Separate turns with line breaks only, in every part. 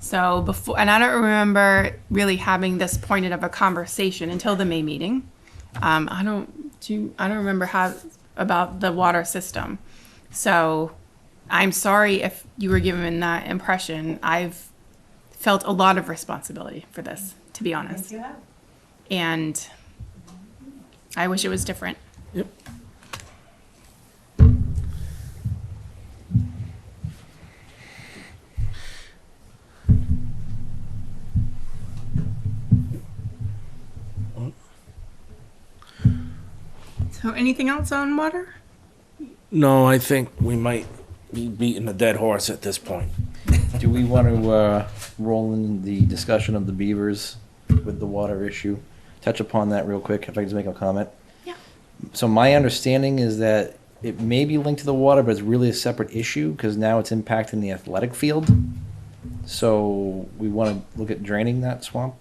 So before, and I don't remember really having this pointed of a conversation until the May meeting. Um, I don't do, I don't remember how, about the water system. So I'm sorry if you were given that impression. I've felt a lot of responsibility for this, to be honest. And I wish it was different.
Yep.
So anything else on water?
No, I think we might be beating a dead horse at this point.
Do we want to uh, roll in the discussion of the beavers with the water issue? Touch upon that real quick, if I can just make a comment.
Yeah.
So my understanding is that it may be linked to the water, but it's really a separate issue because now it's impacting the athletic field. So we want to look at draining that swamp?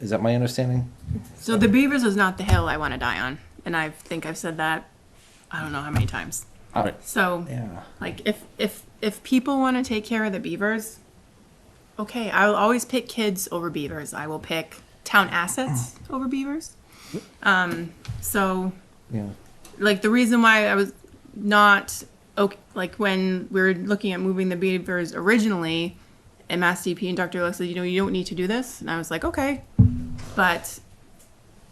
Is that my understanding?
So the Beavers is not the hill I want to die on, and I think I've said that I don't know how many times.
All
right.
So
Yeah.
like if if if people want to take care of the beavers, okay, I will always pick kids over beavers. I will pick town assets over beavers. Um so
Yeah.
like the reason why I was not okay, like when we were looking at moving the beavers originally, and Mass DP and Dr. Lex said, you know, you don't need to do this, and I was like, okay, but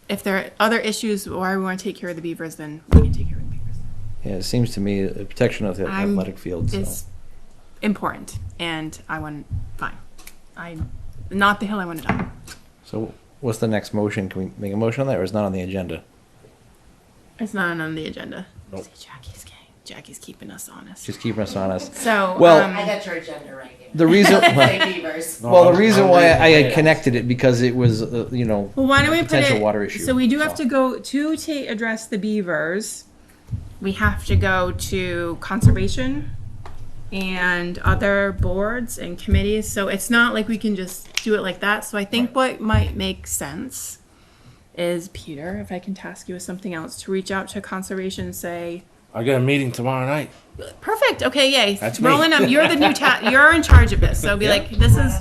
if there are other issues why we want to take care of the beavers, then we can take care of the beavers.
Yeah, it seems to me a protection of the
I'm-
athletic field, so.
It's important, and I want fine. I not the hill I want to die. on.
So what's the next motion? Can we make a motion on that or is it not on the agenda?
It's not on the agenda.
Nope.
See, Jackie's gay. Jackie's keeping us honest.
She's keeping us honest.
So
Well-
um,
I got your agenda right here.
The reason,
Say beavers.
well, the reason why I
Yeah.
had connected it because it was, uh, you know,
Well, why don't we put
potential
it?
water issue,
So we do have
so.
to go to ta- address the beavers. We have to go to conservation and other boards and committees. So it's not like we can just do it like that. So I think what might make sense is Peter, if I can task you with something else, to reach out to conservation and say,
I got a meeting tomorrow night.
"Perfect, okay, yay,
That's me.
Roland, up. You're the new ta- you're in charge of this." So be like, "This is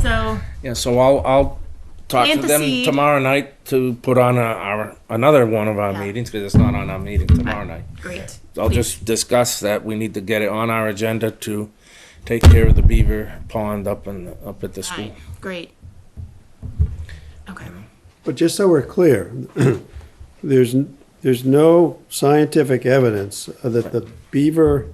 so."
Yeah, so I'll I'll talk
Plant
to
the
them
seed.
tomorrow night to put on a, our another one of our
Yeah.
meetings because it's not on our meeting tomorrow night.
Great.
I'll
Please.
just discuss that we need to get it on our agenda to take care of the beaver pond up in up at the school.
Fine. Great. Okay.
But just so we're clear, there's, n- there's no scientific evidence that the beaver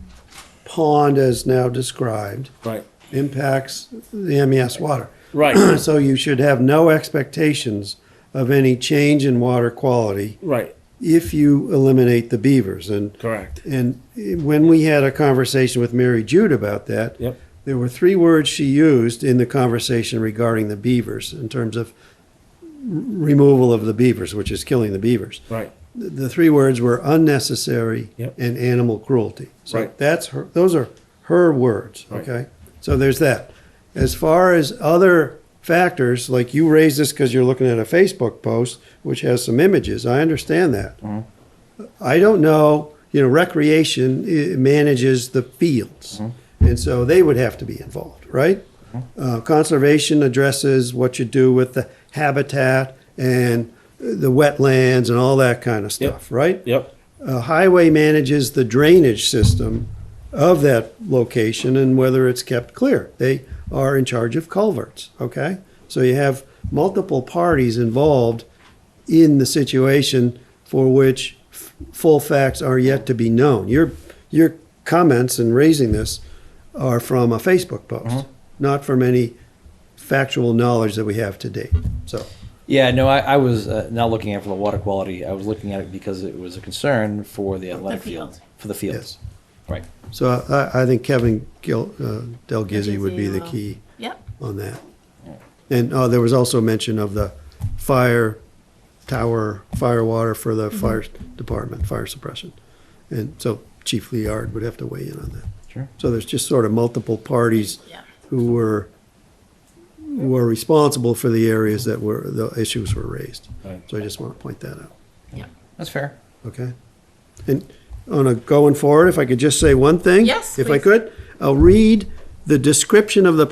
pond as now described
Right.
impacts the MES water.
Right.
So you should have no expectations of any change in water quality
right.
if you eliminate the beavers. And,
Correct.
and when we had a conversation with Mary Jude about that,
Yep.
there were three words she used in the conversation regarding the beavers in terms of r- removal of the beavers, which is killing the beavers.
Right.
The, the three words were unnecessary
Yep.
and animal cruelty. So
Right.
that's her, those are her words,
Right.
okay? So there's that. As far as other factors, like you raised this because you're looking at a Facebook post which has some images, I understand that.
Mm-hmm.
I don't know, you know, recreation eh, manages the fields.
Mm-hmm.
And so they would have to be involved, right? Uh, conservation addresses what you do with the habitat and the wetlands and all that kind of stuff, right?
Yep.
Uh, highway manages the drainage system of that location and whether it's kept clear. They are in charge of culverts, okay? So you have multiple parties involved in the situation for which f- full facts are yet to be known. Your, your comments in raising this are from a Facebook post, not from any factual knowledge that we have to date, so.
Yeah, no, I, I was uh, not looking at for the water quality. I was looking at it because it was a concern for the athletic
field.
field, for the fields.
Yes.
Right.
So I, I think Kevin Gil, uh, Del Gizzi would be the
Gizzi, uh,
key
Yep.
on that. And, oh, there was also mention of the fire tower, fire water for the fire department, fire suppression. And so Chief Liard would have to weigh in on that.
Sure.
So there's just sort of multiple parties
Yeah.
who were, who were responsible for the areas that were, the issues were raised.
Right.
So I just want to point that out.
Yep.
That's fair.
Okay. And on a going forward, if I could just say one thing?
Yes,
If I
please.
could, I'll read the description of the